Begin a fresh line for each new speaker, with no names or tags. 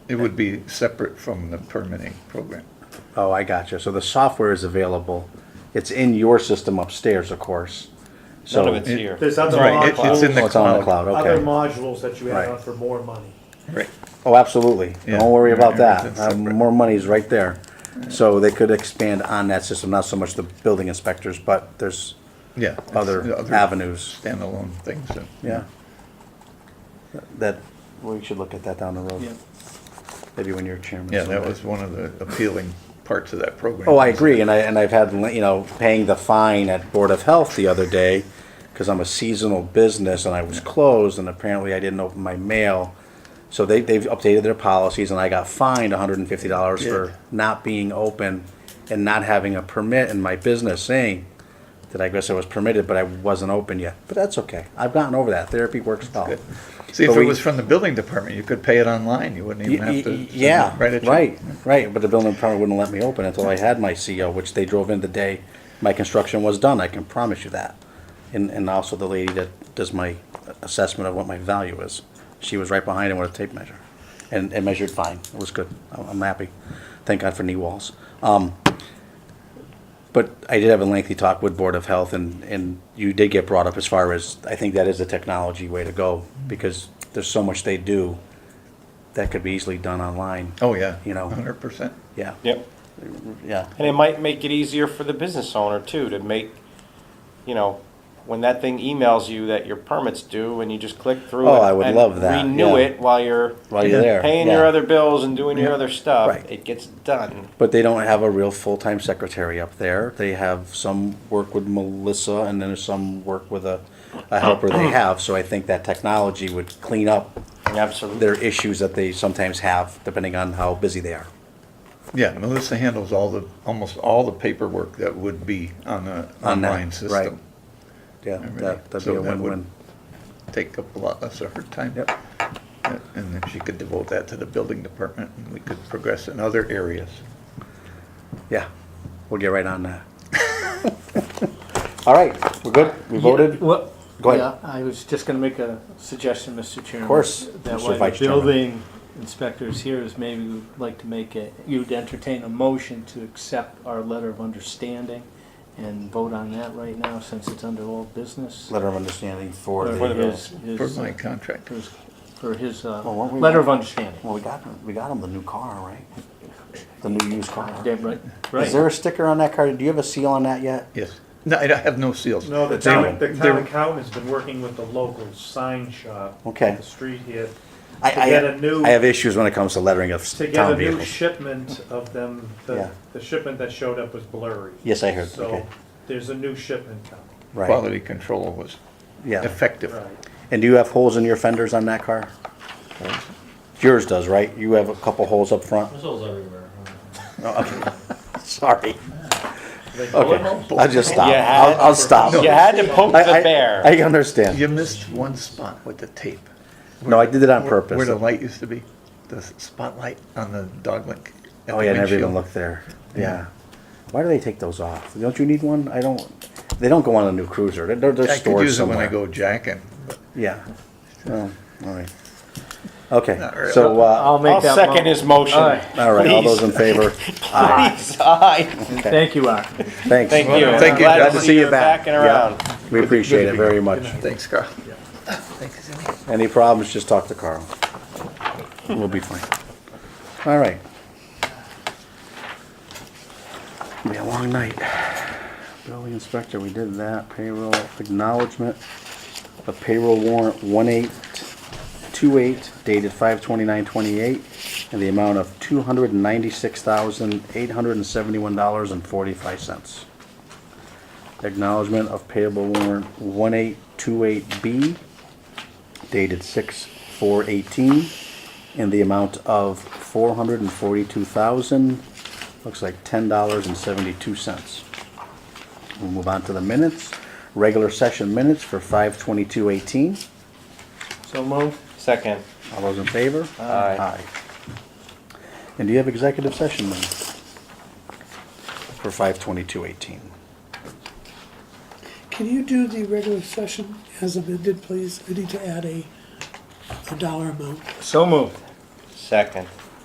It would be separate from the permitting program.
Oh, I gotcha. So the software is available. It's in your system upstairs, of course. So
None of it's here.
There's other
Right, it- it's in
modules,
the
Oh, it's on the
cloud.
cloud.
other
Okay.
modules that you
Right.
add on for more money.
Right.
Oh, absolutely.
Yeah.
Don't worry about that.
Everything's
Uh,
separate.
more money's right there. So they could expand on that system, not so much the building inspectors, but there's
Yeah. it's
other
the
avenues.
Standalone things. that-
Yeah. That, we should look at that down the road. Maybe when you're chairman.
Yeah, that
someday.
was one of the appealing parts of that program.
Oh, I agree, and I, and I've had, you know, paying the fine at Board of Health the other day, because I'm a seasonal business and I was closed, and apparently I didn't open my mail. So they, they've updated their policies, and I got fined hundred and fifty dollars
Yeah.
for not being open and not having a permit in my business, saying that I guess I was permitted, but I wasn't open yet. But that's okay, I've gotten over that, therapy works well.
Good. See, if
But
it
we-
was from the building department, you could pay it online. You wouldn't
Y-
even have
y-
to.
y- Yeah,
write a check.
right, right, but the building department wouldn't let me open until I had my CO, which they drove in the day my construction was done, I can promise you that. And, and also the lady that does my assessment of what my value is, she was right behind him with a tape measure. And, and measured fine, it was good, I'm, I'm happy, thank God for knee walls. Um, but I did have a lengthy talk with Board of Health, and, and you did get brought up as far as, I think that is the technology way to go, because there's so much they do that could be easily done online.
Oh, yeah.
You know.
Hundred percent.
Yeah,
Yep.
yeah,
And it might make it easier for the business owner too, to make, you know, when that thing emails you that your permit's due and you just click through it.
Oh, I would
and
love that, yeah.
Renew it while you're
while you're there.
paying
yeah.
your other bills and doing your other stuff.
Right.
It gets done.
But they don't have a real full-time secretary up there. They have some work with Melissa, and then there's some work with a, a helper they have, so I think that technology would clean up
Absolutely.
their issues that they sometimes have, depending on how busy they are.
Yeah, Melissa handles all the, almost all the paperwork that would be on the
On that,
online
right.
system.
Yeah,
Alrighty.
that, that'd
So
be a
that would-
win-win.
Take up a lot less of her time.
Yep.
Uh, And then she could devote that to the building department and we could progress in other areas.
Yeah, we'll get right on that. All right, we're good? We voted?
Well,
Go ahead.
yeah, I was just gonna make a suggestion, Mr. Chairman. Of
course,
That
Mr.
while
Vice
the
Chairman.
building inspectors here is maybe we'd like to make a, you'd entertain a motion to accept our letter of understanding and vote on that right now since it's under old business.
Letter of understanding for
Or
the,
his-
For
his,
my
uh,
contract,
For his, for his, uh,
Well, weren't Oh, we-
letter of understanding.
well, we got, him- we got him the new car, right? The new used car.
Yeah, right,
Is there
right.
a sticker on that car? Do you have a seal on that yet?
yes. No, I don't have no seals.
No, the
They
town,
were-
the
they
town
were-
accountant's been working with the local sign shop.
Okay.
up The street here,
I,
To get a new-
I, I have issues when it comes to lettering of
to get
town
a new
vehicles.
shipment of them,
Yeah.
the, the shipment that showed up was blurry.
Yes, I heard, okay.
So, there's a new shipment coming,
Right,
Quality control was
yeah.
effective.
right.
And do you have holes in your fenders on that car? Yours does, right? You have a couple holes up front?
There's holes everywhere.
Sorry.
They
Okay, I'll just stop.
You had-
I'll, I'll stop.
You had to poke
I-
the
I-
bear.
I understand.
You missed one spot with the tape.
No, I did it on
Where- Where
purpose.
the light used to be, the s- spotlight on the dog link. at
Oh,
the
yeah, I never even
windshield.
looked there. Yeah. Why do they take those off? Don't you need one? I don't, they don't go on a new cruiser. They're- They're, they're
I could
stored
use it when I
somewhere.
go jacking.
Yeah. Well, all right. Okay,
Not really.
so, uh,
I'll
I'll
make that.
second
mo-
his motion.
All right.
all right, all
Please.
those in favor?
Please, aye.
Thank you, Art.
Thanks.
Thank you.
Thank you.
Glad
Glad to see you back.
and
Yeah.
around.
We appreciate it very much.
Thanks, Carl.
Any problems, just talk to Carl. We'll be fine. All right. Be a long night. Building inspector, we did that. Payroll acknowledgement of payroll warrant one eight two eight dated five twenty-nine twenty-eight and the amount of two hundred and ninety-six thousand, eight hundred and seventy-one dollars and forty-five cents. Acknowledgement of payable warrant one eight two eight B dated six four eighteen in the amount of four hundred and forty-two thousand, looks like ten dollars and seventy-two cents. We'll move on to the minutes, regular session minutes for five twenty-two eighteen.
So moved.
Second.
All those in favor?
Aye.
And do you have executive session minutes for five twenty-two eighteen?
Can you do the regular session as amended, please? I need to add a, a dollar amount.
So moved.
Second.